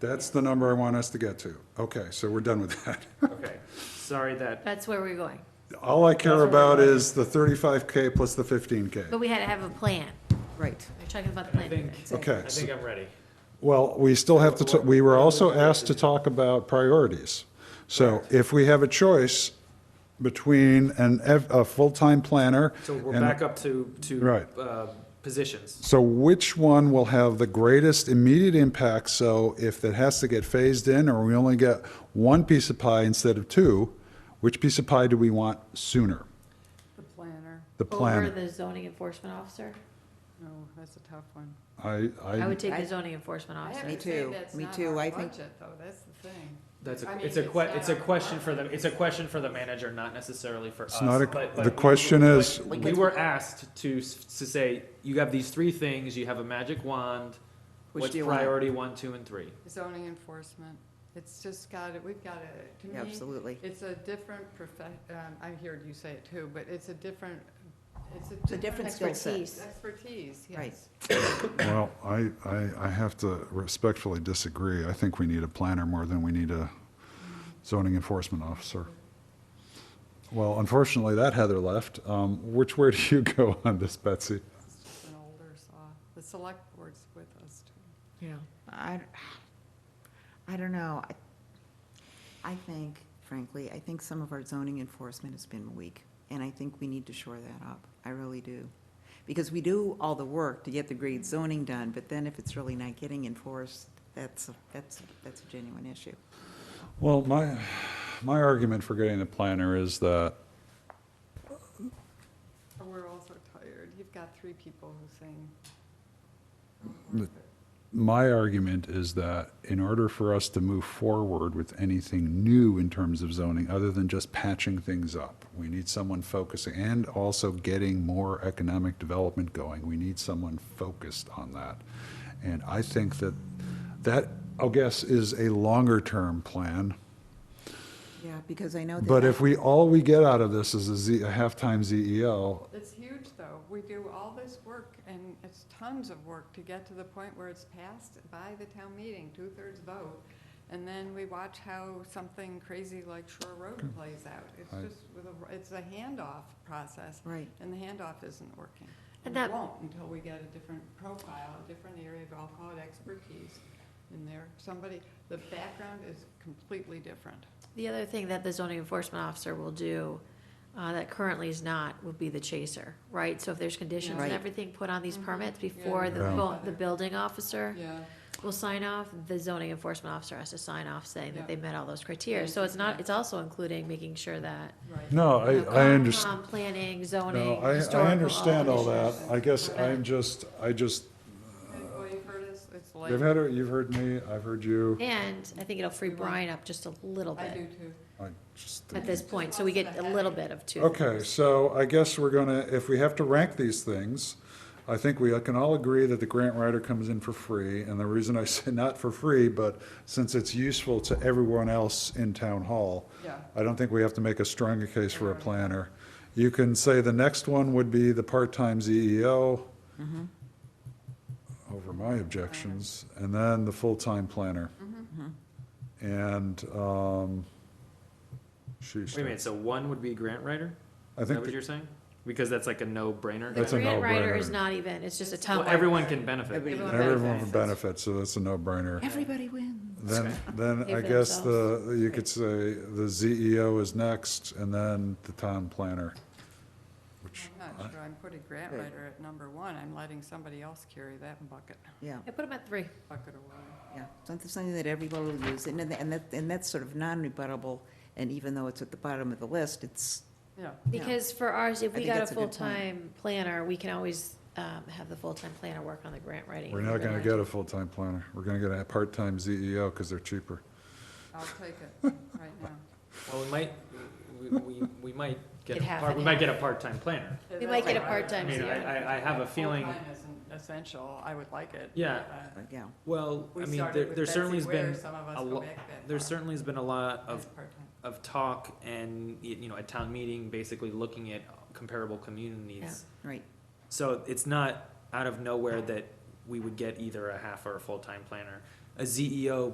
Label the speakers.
Speaker 1: That's the number I want us to get to. Okay, so we're done with that.
Speaker 2: Okay, sorry that,
Speaker 3: That's where we're going.
Speaker 1: All I care
Speaker 2: That's what we're
Speaker 1: about
Speaker 2: doing.
Speaker 1: is the thirty-five K plus the fifteen K.
Speaker 3: But we had to have a plan.
Speaker 4: Right.
Speaker 3: We're talking about the
Speaker 2: I
Speaker 3: plan.
Speaker 2: think,
Speaker 1: Okay,
Speaker 2: I
Speaker 1: so-
Speaker 2: think I'm ready.
Speaker 1: well, we still have to, ta- we were also asked to talk about priorities. So if we have a choice between an, ev- a full-time planner.
Speaker 2: So we're
Speaker 1: and-
Speaker 2: back up to, to.
Speaker 1: Right.
Speaker 2: uh, Positions.
Speaker 1: So which one will have the greatest immediate impact? So if it has to get phased in, or we only get one piece of pie instead of two, which piece of pie do we want sooner?
Speaker 4: The planner,
Speaker 1: The
Speaker 3: Over
Speaker 1: plan.
Speaker 3: the zoning enforcement officer?
Speaker 4: no, that's a tough one.
Speaker 1: I,
Speaker 3: I
Speaker 1: I,
Speaker 3: would take
Speaker 4: I-
Speaker 3: the zoning enforcement
Speaker 5: I have
Speaker 3: officer.
Speaker 4: Me
Speaker 5: to say
Speaker 4: too.
Speaker 5: that's
Speaker 4: Me
Speaker 5: not
Speaker 4: too.
Speaker 5: our
Speaker 4: I think-
Speaker 5: budget, though. That's the thing.
Speaker 2: That's
Speaker 5: I
Speaker 2: a,
Speaker 5: mean,
Speaker 2: it's a que,
Speaker 5: it's
Speaker 2: it's a
Speaker 5: not-
Speaker 2: question for the, it's a question for the manager, not necessarily for us.
Speaker 1: it's not,
Speaker 2: Uh, but-
Speaker 1: a.
Speaker 2: but
Speaker 1: the
Speaker 2: we-
Speaker 1: question
Speaker 2: but
Speaker 1: is,
Speaker 2: We were asked to, s- to say, you have these three things, you have a magic wand,
Speaker 4: Which
Speaker 2: what's
Speaker 4: do you want?
Speaker 2: priority one, two, and three?
Speaker 5: Zoning enforcement, it's just got it, we've got it, to
Speaker 4: Yeah,
Speaker 5: me,
Speaker 4: Absolutely.
Speaker 5: it's a different profe, um, I heard you say it too, but it's a different, it's a.
Speaker 4: a different skill set.
Speaker 3: Expertise.
Speaker 5: Expertise, yes.
Speaker 4: Right.
Speaker 1: well, I, I, I have to respectfully disagree. I think we need a planner more than we need a zoning enforcement officer. Well, unfortunately, that Heather left. Um, Which way do you go on this, Betsy?
Speaker 5: It's just an older saw, the select board's with us too.
Speaker 3: Yeah.
Speaker 4: I, I don't know. I- I think, frankly, I think some of our zoning enforcement has been weak, and I think we need to shore that up. I really do. Because we do all the work to get the grade zoning done, but then if it's really not getting enforced, that's, a- that's, that's a genuine issue.
Speaker 1: Well, my, my argument for getting the planner is that,
Speaker 5: We're also tired, you've got three people who sing.
Speaker 1: my argument is that in order for us to move forward with anything new in terms of zoning, other than just patching things up, we need someone focusing and also getting more economic development going. We need someone focused on that. And I think that, that, I guess, is a longer-term plan.
Speaker 4: Yeah, because I know that.
Speaker 1: But if we, all we get out of this is a Z, E a halftime ZEL,
Speaker 5: It's huge, though. We do all this work, and it's tons of work to get to the point where it's passed by the town meeting, two-thirds vote, and then we watch how something crazy like Shore
Speaker 1: Hmm.
Speaker 5: Road plays out. It's
Speaker 1: I-
Speaker 5: just, with a- it's a handoff process,
Speaker 4: Right.
Speaker 5: and the handoff isn't working.
Speaker 3: And
Speaker 5: And
Speaker 3: that-
Speaker 5: it won't until we get a different profile, a different area of, I'll call it expertise in there. Somebody, the background is completely different.
Speaker 3: The other thing that the zoning enforcement officer will do, uh, that currently is not, would be the chaser, right? So if there's conditions and
Speaker 4: Right.
Speaker 3: everything put on these
Speaker 5: Mhm.
Speaker 3: permits
Speaker 5: Yeah.
Speaker 3: before the,
Speaker 1: Yeah.
Speaker 3: bu- the building officer
Speaker 5: Yeah.
Speaker 3: will sign off, the zoning enforcement officer has to sign off saying
Speaker 5: Yeah.
Speaker 3: that they met all those criteria.
Speaker 5: Yeah,
Speaker 3: So it's not,
Speaker 5: yeah.
Speaker 3: it's also including making sure that
Speaker 5: Right.
Speaker 1: no, I,
Speaker 3: you know,
Speaker 1: I understand.
Speaker 3: Concom, Planning,
Speaker 1: No,
Speaker 3: zoning,
Speaker 1: I,
Speaker 3: historical.
Speaker 1: I understand all that.
Speaker 3: issues.
Speaker 1: I guess I'm just, I just,
Speaker 5: And, Well, you've heard us, it's late.
Speaker 1: you've had, you've heard me, I've heard you.
Speaker 3: And I think it'll free Brian up just a little
Speaker 5: I do
Speaker 3: bit
Speaker 5: too.
Speaker 1: I just
Speaker 3: at
Speaker 1: didn't-
Speaker 3: this point, so we get a little bit of two.
Speaker 1: Okay, so I guess we're gonna, if we have to rank these things, I think we can all agree that the grant writer comes in for free. And the reason I say not for free, but since it's useful to everyone else in town hall,
Speaker 5: Yeah.
Speaker 1: I don't think we have to make a stronger case for a planner. You can say the next one would be the part-time ZEO over my objections, and then the full-time planner. And, um, sheesh.
Speaker 2: Wait a minute, so one would be grant writer?
Speaker 1: I
Speaker 2: Is that
Speaker 1: think,
Speaker 2: what
Speaker 1: the-
Speaker 2: you're saying? Because that's like a no-brainer.
Speaker 3: The
Speaker 1: That's a
Speaker 3: grant writer
Speaker 1: no-brainer.
Speaker 3: is not even, it's just a tongue.
Speaker 2: Well, everyone can benefit.
Speaker 5: Everyone
Speaker 1: everyone would benefit, so that's a no-brainer.
Speaker 4: Everybody wins.
Speaker 1: Then, then
Speaker 3: Pay
Speaker 1: I
Speaker 3: for
Speaker 1: guess the, you could say the ZEO is next, and then the town planner, which
Speaker 5: I'm not sure I'm putting grant writer at number one, I'm letting somebody else carry that bucket,
Speaker 4: Yeah.
Speaker 3: I put them at three.
Speaker 5: bucket of water.
Speaker 4: Yeah, something, something that everybody will use, and, then- and that, and that's sort of non-rebuttable, and even though it's at the bottom of the list, it's,
Speaker 5: Yeah,
Speaker 4: Yeah.
Speaker 3: Because for ours, if
Speaker 4: I
Speaker 3: we
Speaker 4: think
Speaker 3: got a
Speaker 4: that's a good point.
Speaker 3: full-time planner, we can always um, have the full-time planner work on the grant writing.
Speaker 1: We're not gonna get a full-time planner. We're gonna get a part-time ZEO, because they're cheaper.
Speaker 5: I'll take it right now.
Speaker 2: Well, we might, we, we, we might get,
Speaker 3: Get
Speaker 2: a
Speaker 3: half
Speaker 2: part-
Speaker 3: and
Speaker 2: we might
Speaker 3: half.
Speaker 2: get a part-time planner.
Speaker 3: We might get a
Speaker 2: I
Speaker 3: part-time
Speaker 2: mean,
Speaker 3: ZEO.
Speaker 2: I, I, I have a feeling,
Speaker 5: Full-time isn't essential, I would like it.
Speaker 2: Yeah.
Speaker 5: but, uh,
Speaker 4: but yeah.
Speaker 2: well,
Speaker 5: We
Speaker 2: I mean,
Speaker 5: started
Speaker 2: there,
Speaker 5: with
Speaker 2: there
Speaker 5: Betsy
Speaker 2: certainly has
Speaker 5: Ware,
Speaker 2: been,
Speaker 5: some of us
Speaker 2: a
Speaker 5: go
Speaker 2: lo-
Speaker 5: back that
Speaker 2: there
Speaker 5: far.
Speaker 2: certainly has been a lot of,
Speaker 5: It's part-time.
Speaker 2: of talk and, y- you know, a town meeting basically looking at comparable communities.
Speaker 4: Right,
Speaker 2: So it's not out of nowhere that we would get either a E half or a full-time planner. A ZEO